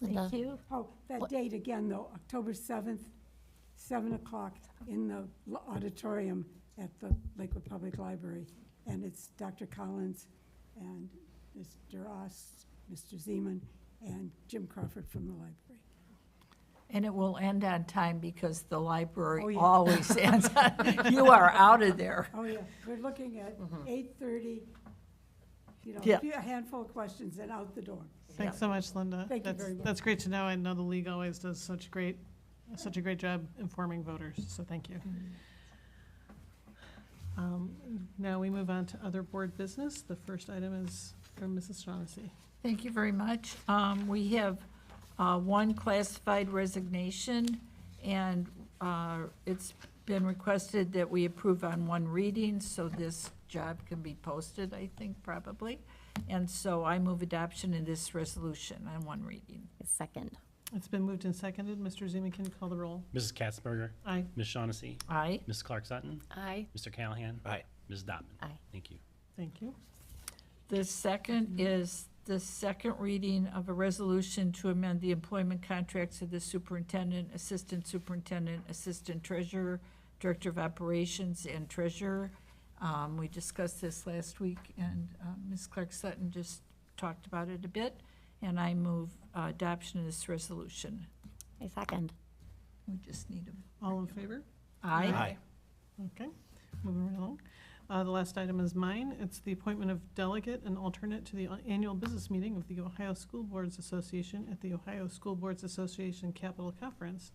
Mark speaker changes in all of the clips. Speaker 1: Linda?
Speaker 2: Thank you.
Speaker 3: Oh, that date again, though, October 7th, 7 o'clock in the l- auditorium at the Lakewood Public Library. And it's Dr. Collins and Mr. Oss, Mr. Zeman, and Jim Crawford from the library.
Speaker 2: And it will end on time because the
Speaker 3: Oh,
Speaker 2: library
Speaker 3: yeah.
Speaker 2: always ends. You are out of there.
Speaker 3: Oh, yeah, Mm-hmm. we're looking at 8:30, you know,
Speaker 2: Yeah.
Speaker 3: a few- a handful of questions and out the door.
Speaker 4: Thanks so much, Linda.
Speaker 3: Thank you
Speaker 4: That's-
Speaker 3: very much.
Speaker 4: That's great to know. I know the league always does such great, such a great job informing voters, so thank you.
Speaker 3: Mm-hmm.
Speaker 4: Um, Now we move on to other board business. The first item is from Mrs. Shaughnessy.
Speaker 2: Thank you very much. Um, We have uh, one classified resignation, and uh, it's been requested that we approve on one reading, so this job can be posted, I think, probably. And so I move adoption of this resolution on one reading.
Speaker 1: Second.
Speaker 4: It's been moved and seconded. Mr. Zeman can you call the roll.
Speaker 5: Mrs. Katzberger,
Speaker 4: Aye.
Speaker 5: Ms. Shaughnessy,
Speaker 2: Aye.
Speaker 5: Ms. Clark Sutton,
Speaker 1: Aye.
Speaker 5: Mr. Callahan.
Speaker 6: Aye.
Speaker 5: Ms. Dotman.
Speaker 1: Aye.
Speaker 5: Thank you.
Speaker 4: Thank you.
Speaker 2: The second is the second reading of a resolution to amend the employment contracts of the superintendent, assistant superintendent, assistant treasurer, director of operations, and treasurer. Um, We discussed this last week, and uh, Ms. Clark Sutton just talked about it a bit, and I move uh, adoption of this resolution.
Speaker 1: I second.
Speaker 2: We just need a,
Speaker 4: All in favor?
Speaker 2: aye?
Speaker 4: Okay, moving right along. Uh, The last item is mine. It's the appointment of delegate and alternate to the annual business meeting of the Ohio School Boards Association at the Ohio School Boards Association Capital Conference.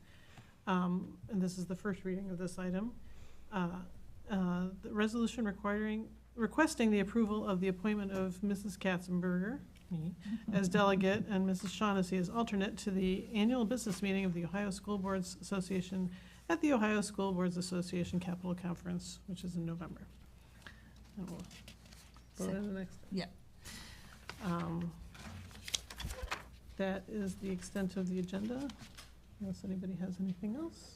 Speaker 4: Um, And this is the first reading of this item. Uh, uh, The resolution requiring, requesting the approval of the appointment of Mrs. Katzenberger, me, as delegate and Mrs. Shaughnessy as alternate to the annual business meeting of the Ohio School Boards Association at the Ohio School Boards Association Capital Conference, which is in November. And we'll vote on the next.
Speaker 2: Yeah.
Speaker 4: Um, That is the extent of the agenda, unless anybody has anything else.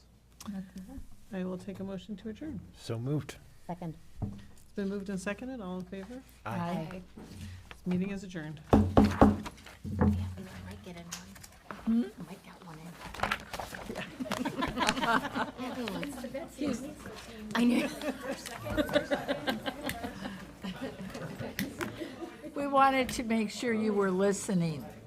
Speaker 4: I will take a motion to adjourn.
Speaker 6: So moved.
Speaker 1: Second.
Speaker 4: It's been moved and seconded, all in favor?
Speaker 2: Aye.
Speaker 4: This Meeting is adjourned.
Speaker 1: Yeah, we might get in
Speaker 2: Hmm?
Speaker 1: one. I might get one in. Everyone's- I know.
Speaker 2: We wanted to make sure you were listening.